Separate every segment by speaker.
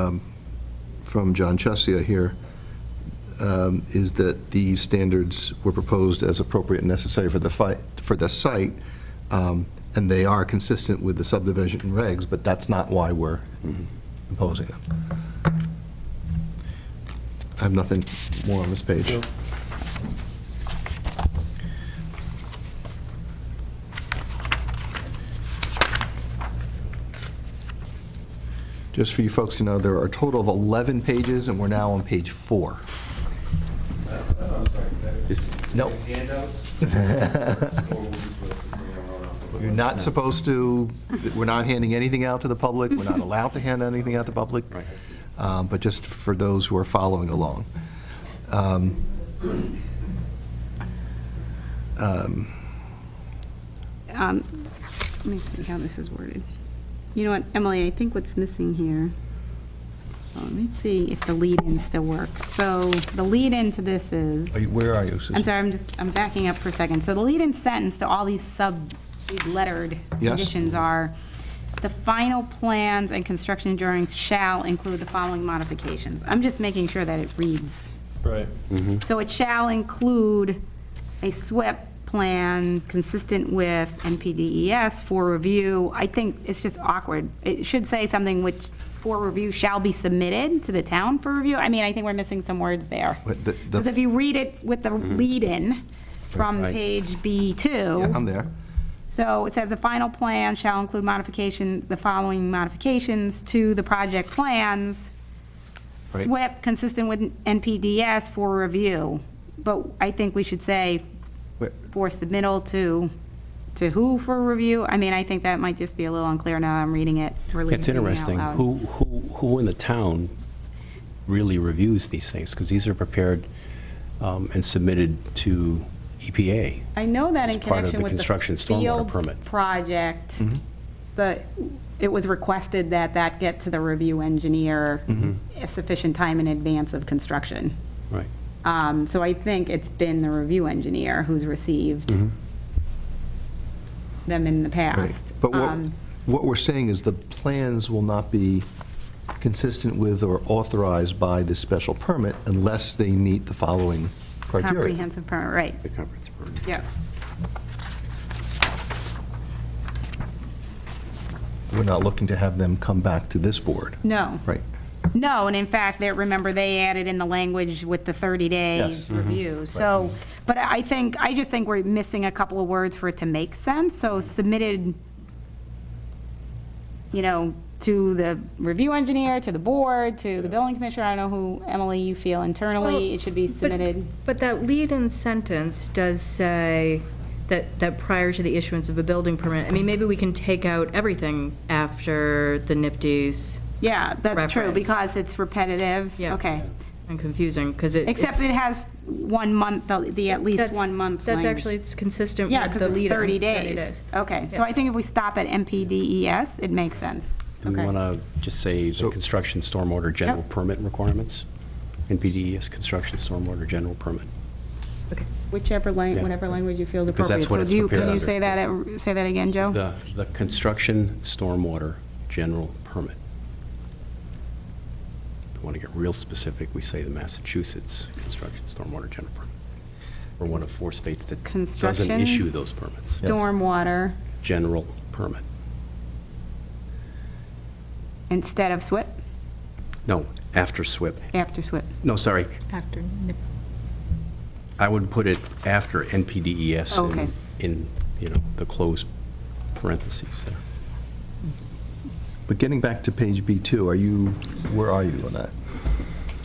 Speaker 1: um, from John Chesia here, um, is that these standards were proposed as appropriate and necessary for the fight, for the site, um, and they are consistent with the subdivision regs, but that's not why we're imposing them. I have nothing more on this page. Just for you folks to know, there are a total of 11 pages, and we're now on page four.
Speaker 2: Is-
Speaker 1: Nope. You're not supposed to, we're not handing anything out to the public, we're not allowed to hand anything out to the public, Um, but just for those who are following along. Um, um,
Speaker 3: Um, Let me see how this is worded. You know what, Emily, I think what's missing here, oh, let me see if the lead-in still works. So the lead-in to this is,
Speaker 1: are you- Where are you? Susan?
Speaker 3: I'm sorry, I'm just, I'm backing up for a second. So the lead-in sentence to all these sub, these lettered
Speaker 1: Yes.
Speaker 3: conditions are, the final plans and construction drawings shall include the following modifications. I'm just making sure that it reads
Speaker 4: Right.
Speaker 1: Mm-hmm.
Speaker 3: So it shall include a SWIP plan consistent with NPDES E for review. I think it's just awkward. It should say something which, for review, shall be submitted to the town for review. I mean, I think we're missing some words there.
Speaker 1: But the- the-
Speaker 3: Because if you read it with the lead-in from
Speaker 2: Mm-hmm. Right. um,
Speaker 1: Yeah,
Speaker 3: page
Speaker 1: I'm
Speaker 3: B2,
Speaker 1: there.
Speaker 3: so it says the final plan shall include modification, the following modifications to the project plans.
Speaker 1: Right.
Speaker 3: SWIP consistent with NPDS for review, but I think we should say
Speaker 1: Where-
Speaker 3: for submittal to, to who for review? I mean, I think that might just be a little unclear now I'm reading it, or reading
Speaker 2: It's
Speaker 3: it out
Speaker 2: interesting,
Speaker 3: loud.
Speaker 2: who, who, who in the town really reviews these things? Because these are prepared um, and submitted to E EPA.
Speaker 3: I know that in
Speaker 2: It's part of
Speaker 3: connection
Speaker 2: the
Speaker 3: with the
Speaker 2: construction stormwater
Speaker 3: Fields
Speaker 2: permit. Mm-hmm.
Speaker 3: project, the, it was requested that that get to the review engineer
Speaker 2: Mm-hmm.
Speaker 3: a sufficient time in advance of construction.
Speaker 2: Right.
Speaker 3: Um, So I think it's been the review engineer who's received
Speaker 2: Mm-hmm.
Speaker 3: them in the
Speaker 1: Right.
Speaker 3: past.
Speaker 1: But what,
Speaker 3: Um,
Speaker 1: what we're saying is the plans will not be consistent with or authorized by this special permit unless they meet the following criteria.
Speaker 3: Comprehensive permit, right,
Speaker 2: The comprehensive permit.
Speaker 3: yeah.
Speaker 1: We're not looking to have them come back to this board.
Speaker 3: No.
Speaker 1: Right.
Speaker 3: No, and in fact, they, remember, they added in the language with the 30
Speaker 1: Yes.
Speaker 3: days review. So, but I think, I just think we're missing a couple of words for it to make sense. So submitted, you know, to the review engineer, to the board, to the building commissioner, I don't know who, Emily, you feel internally,
Speaker 5: Well,
Speaker 3: it should be
Speaker 5: but-
Speaker 3: submitted.
Speaker 5: But that lead-in sentence does say that, that prior to the issuance of a building permit, I mean, maybe we can take out everything after the NIPD's
Speaker 3: Yeah, that's true,
Speaker 5: Reference.
Speaker 3: because it's repetitive.
Speaker 5: Yeah.
Speaker 3: Okay.
Speaker 5: and confusing, because it.
Speaker 3: Except it
Speaker 5: it's-
Speaker 3: has one month, the- the at least
Speaker 5: that's-
Speaker 3: one month
Speaker 5: That's
Speaker 3: language.
Speaker 5: actually, it's consistent with
Speaker 3: Yeah,
Speaker 5: the lead-in.
Speaker 3: because it's 30 days. Okay, so
Speaker 5: Yeah.
Speaker 3: I think if we stop at MPDES, E it makes sense.
Speaker 2: Do we
Speaker 3: Okay.
Speaker 2: want to just say the
Speaker 1: So-
Speaker 2: construction stormwater general permit requirements? NPDES, E construction stormwater general permit.
Speaker 3: Whichever language,
Speaker 2: Yeah.
Speaker 3: whatever language you feel is
Speaker 2: Because
Speaker 3: appropriate.
Speaker 2: that's what
Speaker 3: So
Speaker 2: it's
Speaker 3: do you, can
Speaker 2: prepared
Speaker 3: you
Speaker 2: under.
Speaker 3: say that, at- say that again, Joe?
Speaker 2: The, the construction stormwater general permit. If we want to get real specific, we say the Massachusetts construction stormwater general permit. We're one of four states that doesn't
Speaker 3: Construction.
Speaker 2: issue those permits.
Speaker 3: Stormwater
Speaker 2: General permit.
Speaker 3: instead of SWIP,
Speaker 2: No, after SWIP.
Speaker 3: after SWIP.
Speaker 2: No, sorry,
Speaker 5: After
Speaker 2: I would put it after NPDES in-
Speaker 3: Oh, Okay.
Speaker 2: E in, you know, the closed parentheses there.
Speaker 1: But getting back to page B2, are you, where are you on that?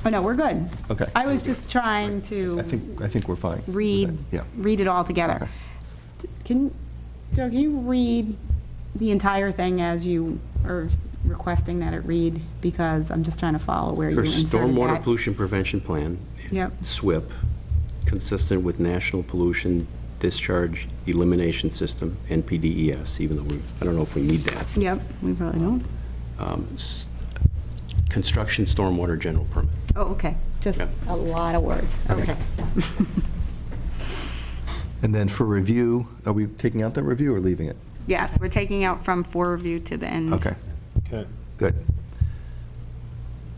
Speaker 3: Oh, no, we're good.
Speaker 1: Okay.
Speaker 3: I was just trying
Speaker 1: I
Speaker 3: to
Speaker 1: think, I think we're fine. with that.
Speaker 3: read,
Speaker 1: Yeah.
Speaker 3: read it all together. Can, Joe, can you read the entire thing as you are requesting that it read? Because I'm just trying to follow where you
Speaker 2: For
Speaker 3: inserted
Speaker 2: stormwater
Speaker 3: that.
Speaker 2: pollution prevention plan.
Speaker 3: Yep.
Speaker 2: SWIP, consistent with National Pollution Discharge Elimination System, NPDES, E even though we, I don't know if we need that.
Speaker 3: Yep, we probably don't.
Speaker 2: Um, s- Construction stormwater general permit.
Speaker 3: Oh, okay, just
Speaker 2: Yep.
Speaker 3: a lot of words, okay.
Speaker 1: And then for review, are we taking out that review or leaving it?
Speaker 3: Mm-hmm. Yes, we're taking out from for review to the end.
Speaker 1: Okay,
Speaker 4: Okay.
Speaker 1: good.